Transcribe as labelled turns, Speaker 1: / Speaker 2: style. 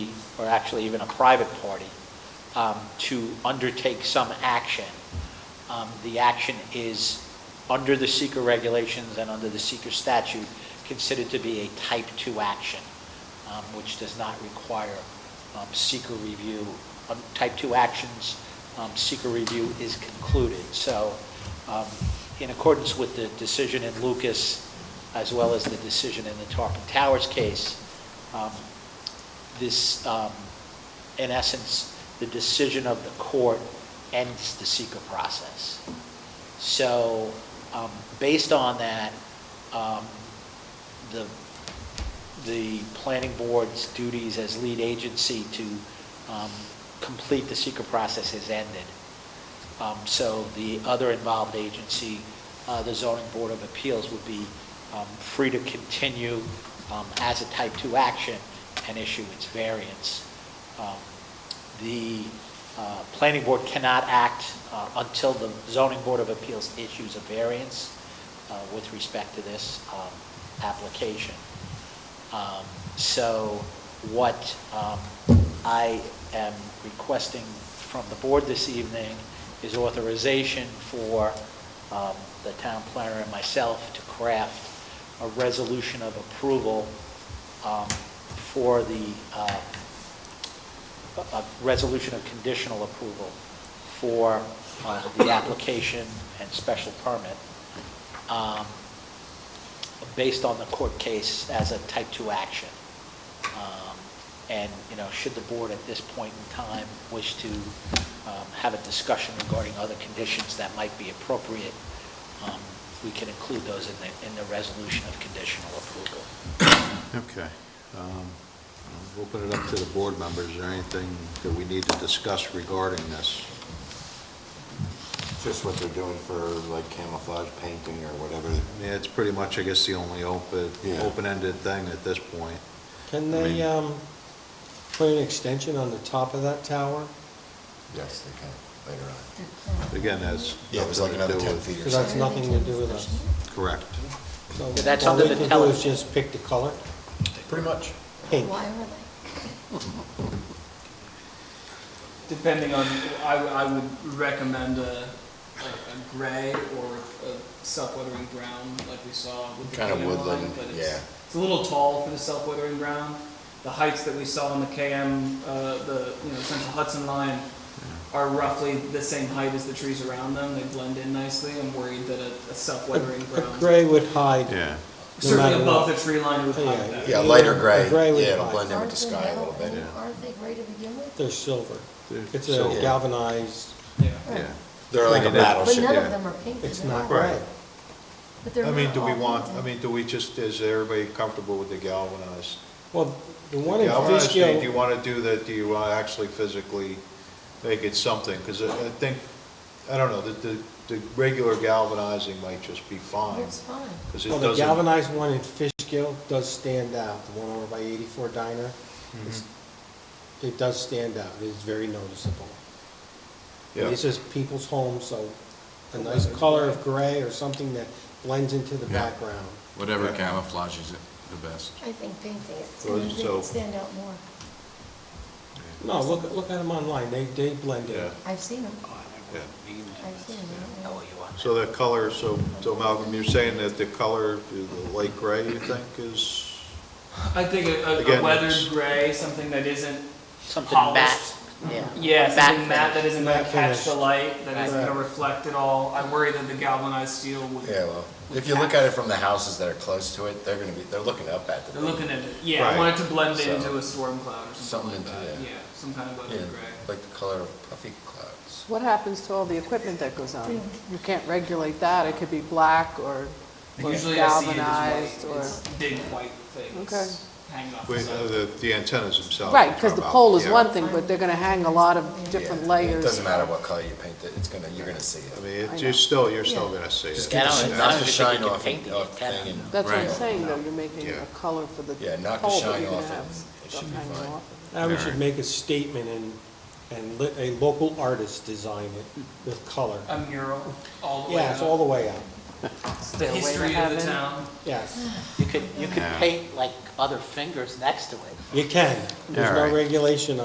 Speaker 1: or actually even a private party, um, to undertake some action. Um, The action is, under the seeker regulations and under the seeker statute, considered to be a type 2 action, um, which does not require um, seeker review. Um, Type 2 actions, um, seeker review is concluded. So um, in accordance with the decision in Lucas, as well as the decision in the Tarpon Towers case, um, this, um, in essence, the decision of the court ends the seeker process. So, um, based on that, um, the, the planning board's duties as lead agency to um, complete the seeker process is ended. Um, So the other involved agency, uh, the zoning board of appeals, would be um, free to continue um, as a type 2 action and issue its variance. Um, The uh, planning board cannot act uh, until the zoning board of appeals issues a variance uh, with respect to this um, application. Um, So what um, I am requesting from the board this evening is authorization for um, the town planner and myself to craft a resolution of approval um, for the, uh, a a resolution of conditional approval for uh, the application and special permit. Um, based on the court case as a type 2 action. Um, And, you know, should the board at this point in time wish to um, have a discussion regarding other conditions that might be appropriate, um, we can include those in the, in the resolution of conditional approval.
Speaker 2: Okay. Um, I'll Open it up to the board members. Is there anything that we need to discuss regarding this?
Speaker 3: Just what they're doing for like camouflage painting or whatever.
Speaker 2: I mean, it's pretty much, I guess, the only open,
Speaker 3: Yeah.
Speaker 2: open-ended thing at this point.
Speaker 4: Can
Speaker 2: I
Speaker 4: they
Speaker 2: mean-
Speaker 4: um, put an extension on the top of that tower?
Speaker 3: Yes, they can, later on.
Speaker 2: Again, that's.
Speaker 3: Yeah, it was like
Speaker 2: nothing to
Speaker 3: another
Speaker 2: do
Speaker 3: ten
Speaker 2: with-
Speaker 3: feet or
Speaker 4: Because that's
Speaker 3: something.
Speaker 4: nothing to do with us.
Speaker 2: Correct.
Speaker 4: So
Speaker 1: But that's under the
Speaker 4: All we
Speaker 1: tele-
Speaker 4: can do is just pick the color,
Speaker 3: Pretty much.
Speaker 4: pink.
Speaker 5: Why were they?
Speaker 6: Depending on, I, I would recommend a, a, a gray or a self-weathering brown, like we saw with the
Speaker 3: Kinda
Speaker 6: KM line,
Speaker 3: woodland,
Speaker 6: but
Speaker 3: yeah.
Speaker 6: it's, it's a little tall for the self-weathering brown. The heights that we saw on the KM, uh, the, you know, Central Hudson line are roughly the same height as the trees around them, they blend in nicely, I'm worried that a, a
Speaker 4: A
Speaker 6: self-weathering
Speaker 4: a
Speaker 6: brown,
Speaker 4: gray would hide,
Speaker 2: Yeah.
Speaker 4: no
Speaker 6: certainly
Speaker 4: matter
Speaker 6: above
Speaker 4: what.
Speaker 6: the tree line, it would
Speaker 4: Yeah,
Speaker 6: hide that.
Speaker 3: Yeah, lighter gray,
Speaker 4: A gray with
Speaker 3: yeah, it'll
Speaker 4: white.
Speaker 3: blend in with the
Speaker 5: Aren't
Speaker 3: sky a little
Speaker 5: they-
Speaker 3: bit.
Speaker 5: Aren't they gray to begin with?
Speaker 4: They're silver.
Speaker 2: They're
Speaker 4: It's
Speaker 2: silver.
Speaker 4: a galvanized,
Speaker 6: Yeah.
Speaker 2: Yeah.
Speaker 3: They're like
Speaker 2: Right, it
Speaker 3: a
Speaker 2: is.
Speaker 5: But
Speaker 3: battleship.
Speaker 5: none
Speaker 2: yeah.
Speaker 5: of them are pink
Speaker 4: it's
Speaker 5: at all.
Speaker 4: not gray.
Speaker 2: Right.
Speaker 5: But they're
Speaker 2: I mean,
Speaker 5: not
Speaker 2: do we
Speaker 5: all
Speaker 2: want,
Speaker 5: pink.
Speaker 2: I mean, do we just, is everybody comfortable with the galvanized?
Speaker 4: Well, the one in
Speaker 2: Galvanized thing, Do you
Speaker 4: Fishkill,
Speaker 2: want to do that, do you want to actually physically make it something? Because I I think, I don't know, the, the, the regular galvanizing might just be fine.
Speaker 5: Looks fine.
Speaker 2: 'cause it
Speaker 4: well, the
Speaker 2: doesn't-
Speaker 4: galvanized one in Fishkill does stand out, the one over by 84 Diner.
Speaker 2: Mm-hmm.
Speaker 4: It's- It does stand out, it is very noticeable.
Speaker 2: Yeah.
Speaker 4: This is people's homes, so a nice color of gray or something that blends into the
Speaker 7: Yeah.
Speaker 4: background.
Speaker 7: Whatever
Speaker 2: Yeah.
Speaker 7: camouflages it the best.
Speaker 5: I think painting it,
Speaker 2: So-
Speaker 5: they
Speaker 2: so-
Speaker 5: would stand out more.
Speaker 4: No, look, look at them online, they, they blend in.
Speaker 2: Yeah,
Speaker 5: I've seen them,
Speaker 2: yeah.
Speaker 5: I've seen
Speaker 1: How
Speaker 5: them.
Speaker 1: are Oh, you on?
Speaker 2: So the color, so, so Malcolm, you're saying that the color, the light gray, you think is,
Speaker 6: I think a, a-
Speaker 2: Again,
Speaker 6: a weathered
Speaker 2: it's-
Speaker 6: gray, something that isn't
Speaker 1: Something matte,
Speaker 6: Polished.
Speaker 1: yeah.
Speaker 6: Yeah,
Speaker 1: Matte
Speaker 6: something matte that
Speaker 1: finish.
Speaker 6: isn't
Speaker 4: Matte
Speaker 6: gonna catch
Speaker 4: finish.
Speaker 6: the light, that isn't
Speaker 4: Right.
Speaker 6: gonna reflect at all. I worry that the galvanized steel would,
Speaker 3: Yeah, well, if you look at it from the houses that are close to it, they're gonna be, they're looking up at the.
Speaker 6: they're looking at it, yeah, I
Speaker 2: Right.
Speaker 6: want it to blend
Speaker 3: So-
Speaker 6: into a storm cloud or something
Speaker 3: Something
Speaker 6: like
Speaker 3: into
Speaker 6: that,
Speaker 3: that.
Speaker 6: yeah, some kind of
Speaker 3: Yeah,
Speaker 6: weathered gray.
Speaker 3: like the color of puffy clouds.
Speaker 8: What happens to all the equipment that goes on? You can't regulate that, it could be black or or
Speaker 6: Usually I see it
Speaker 8: galvanized
Speaker 6: as white,
Speaker 8: or...
Speaker 6: it's big white
Speaker 8: Okay.
Speaker 6: things hanging off the
Speaker 2: wait,
Speaker 6: side.
Speaker 2: uh, the, the antennas themselves?
Speaker 8: Right, because the pole is
Speaker 2: Yeah.
Speaker 8: one thing, but they're going to hang a lot of different
Speaker 3: Yeah, It
Speaker 8: layers.
Speaker 3: doesn't matter what color you paint it, it's gonna, you're gonna see
Speaker 2: I
Speaker 3: it.
Speaker 2: mean,
Speaker 8: I
Speaker 2: it's, you're
Speaker 8: know.
Speaker 2: still, you're still
Speaker 5: Yeah.
Speaker 2: gonna see
Speaker 3: Just
Speaker 2: it.
Speaker 1: I
Speaker 3: get the
Speaker 1: don't- I
Speaker 3: sh- not
Speaker 1: don't
Speaker 3: the
Speaker 1: think
Speaker 3: shine
Speaker 1: you can
Speaker 3: off,
Speaker 1: paint the
Speaker 3: off
Speaker 1: antenna.
Speaker 3: thing and-
Speaker 8: That's what I'm
Speaker 7: Right.
Speaker 8: saying, though, you're making
Speaker 2: Yeah.
Speaker 8: a color for the
Speaker 3: Yeah, knock the
Speaker 8: pole that
Speaker 3: shine
Speaker 8: you're going
Speaker 3: off
Speaker 8: to
Speaker 3: it.
Speaker 8: have
Speaker 3: It
Speaker 8: stuff
Speaker 3: should be
Speaker 8: hanging
Speaker 3: fine.
Speaker 8: off.
Speaker 4: Now we should
Speaker 7: Alright.
Speaker 4: make a statement and, and let a local artist design it with color.
Speaker 6: A mural, all the way
Speaker 4: Yeah, it's all
Speaker 6: up.
Speaker 4: the way up.
Speaker 6: the
Speaker 8: Stairway to
Speaker 6: history of the
Speaker 8: heaven.
Speaker 6: town.
Speaker 4: Yes,
Speaker 1: You could, you could
Speaker 7: Yeah.
Speaker 1: paint like other fingers next to it.
Speaker 4: you can. There's
Speaker 7: Yeah,
Speaker 4: no
Speaker 7: right.
Speaker 4: regulation